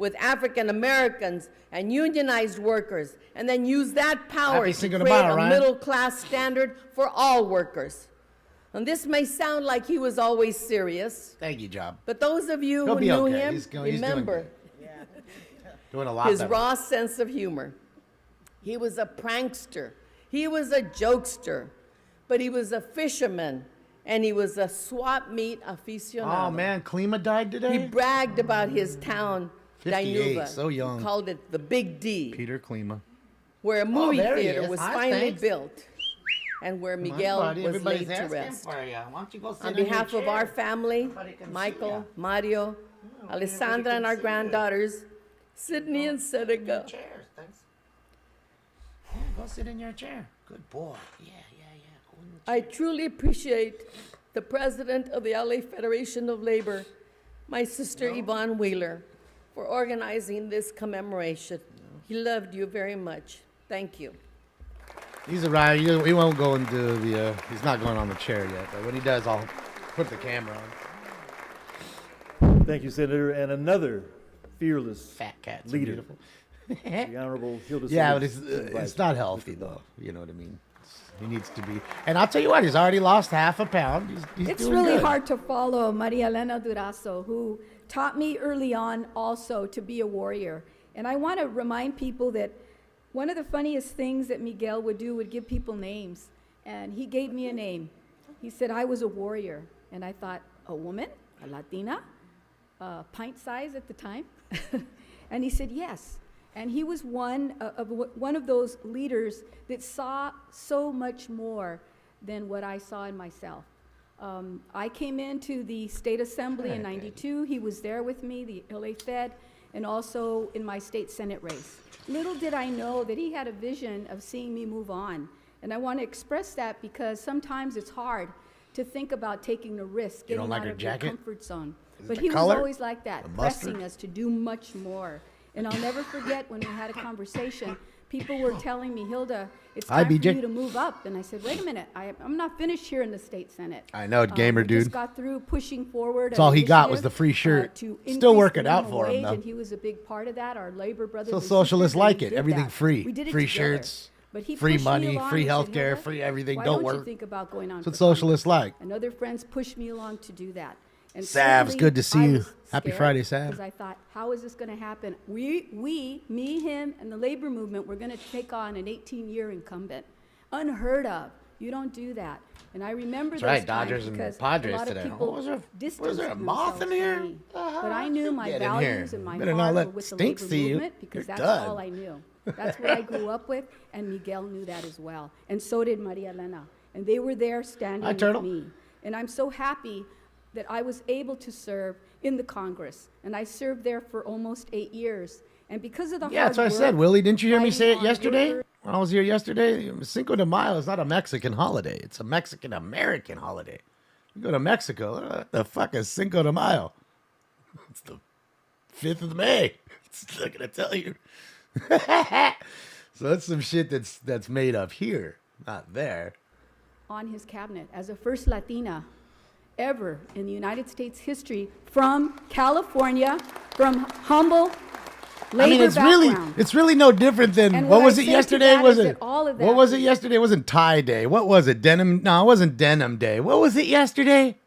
with African Americans and unionized workers, and then use that power Happy to Cinco create de Mayo, a Ryan. middle-class standard for all workers. And this may sound like he was always serious, Thank you, Job. but those of you He'll who be knew okay. him He's go- he's doing remember Doing a lot his better. raw sense of humor. He was a prankster. He was a jokester, but he was a fisherman, and he was a swap meet aficionado. Oh man, Klima died today. He bragged about his town, 58, Dinuba. so young. He called it the Big D, Peter Klima. where a movie Oh, there he theater is. was Hi, finally thanks. built, and where Miguel was laid to rest. On behalf of our family, Somebody can Oh, see ya. Michael, Mario, Alessandra, and our granddaughters, Sydney Oh, and Seneca. Chairs, thanks. go sit in your chair. Good boy. Yeah, yeah, yeah. I truly appreciate the president of the LA Federation of Labor, my sister Yvonne Wheeler, for organizing this commemoration. He loved you very much. Thank you. He's a rider. He- He won't go into the. Uh, he's not going on the chair yet. But when he does, I'll put the camera on. Thank you, Senator. And another fearless Fat cats. are leader, beautiful. the Honorable Hilda. Yeah, but Smith it's uh, Vice it's not healthy though. You know what I mean. It's- He needs to be. And I'll tell you what. He's already lost half a pound. He's, he's It's doing really good. hard to follow Maria Elena Durazo, who taught me early on also to be a warrior. And I want to remind people that one of the funniest things that Miguel would do would give people names. And he gave me a name. He said I was a warrior. And I thought, a woman? A Latina? uh, pint size at the time? and he said yes. And he was one o- of w- one of those leaders that saw so much more than what I saw in myself. Um, I came into the state assembly in '92. He was there with me, the LA Fed, and also in my state senate race. Little did I know that he had a vision of seeing me move on. And I want to express that because sometimes it's hard to think about taking a risk, You getting don't like out her of your jacket? comfort zone. Is it But the he color? was always like The that, mustard? pressing us to do much more. And I'll never forget when we had a conversation, people were telling me, Hilda, it's Hi, time for BJ. you to move up. And I said, wait a minute, I, I'm not finished here in the state senate. I know, Um, gamer we just dude. got through pushing forward. That's an all he got was initiative, the free uh, shirt. to Still increase the working out minimum for him, wage, though. And he was a big part of that. Our labor brothers. So and socialists sisters, and like we it. did Everything that. free. We did it Free together. shirts, But he free pushed me money, along free and said, healthcare, "Hilda, free everything. why Don't don't you work." think about going on That's what for Congress?" socialists like. and other friends pushed me along to do that. And Savs, certainly good to see I you. was Happy scared Friday, Sav. Because I thought, how is this going to happen? We, we, me, him, and the labor movement, we're going to take on an 18-year incumbent, unheard of. You don't do that. And I remember That's those right, times Dodgers and because Padres a lot today. Of people Oh, was there- was distanced there a moth themselves in from here? me. Uh-huh, But I knew my get in here. values and my Better not heart let were with the Stink labor see you. movement because You're that's all done. I knew. That's what I grew up with, and Miguel knew that as well, and so did Maria Elena. And they were there standing Hi, with Turtle. me. And I'm so happy that I was able to serve in the Congress, and I served there for almost eight years. And because of the Yeah, hard that's what I said, work, Willie. Didn't you hear me fighting say it on yesterday? worker- When I was here yesterday, Cinco de Mayo is not a Mexican holiday. It's a Mexican American holiday. You go to Mexico, uh, what the fuck is Cinco de Mayo? It's the 5th of May. It's not going to tell you. so that's some shit that's that's made up here, not there. on his cabinet as the first Latina ever in the United States history from California, from humble labor I mean, it's background. really it's really no different than And what, what was I it say to yesterday? that Was is it that all of what that was it was- yesterday? It wasn't tie day. What was it? Denim? No, it wasn't denim day. What was it yesterday?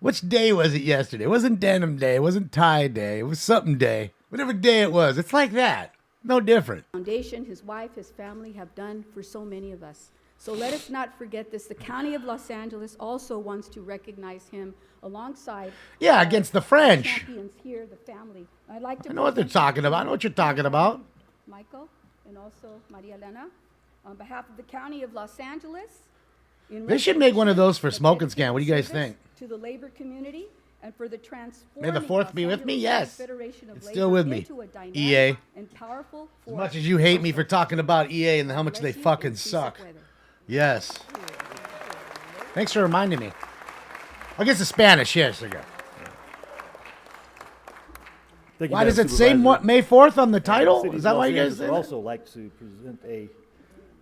Which day was it yesterday? It wasn't denim day. It wasn't tie day. It was something day. Whatever day it was, it's like that. No different. foundation his wife, his family have done for so many of us. So let us not forget this. The County of Los Angeles also wants to recognize him alongside Yeah, against the French. champions here, the family. I'd like to I know what they're present- talking about. I know what you're talking about. Michael, and also Maria Elena, on behalf of the County of Los Angeles. in They should make one of those for recognition Smoke and dedicated Scan. What do you guys service think? To the labor community and for the transforming. fourth Los be with me? Angeles Yes. Federation of It's Labor still with me, into a dynamic EA. And powerful As force. much as you hate me for talking about EA and how much they Bless you, fucking and peace of suck. weather. Yes. Thanks for reminding me. I guess it's Spanish. Yes, there you go. Thank you, Why does Madam it say Supervisor. Mo- May 4th on the title? City of Is that Los why you guys Angeles say would that? also like to present a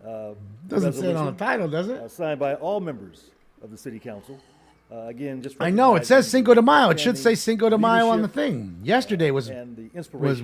uh, Doesn't say it on resolution, the title, does uh, it? signed by all members of the City Council Uh, again, just I know it says recognizing Cinco de Mayo. It should outstanding say Cinco de Mayo on the leadership thing. Yesterday was And the inspiration. was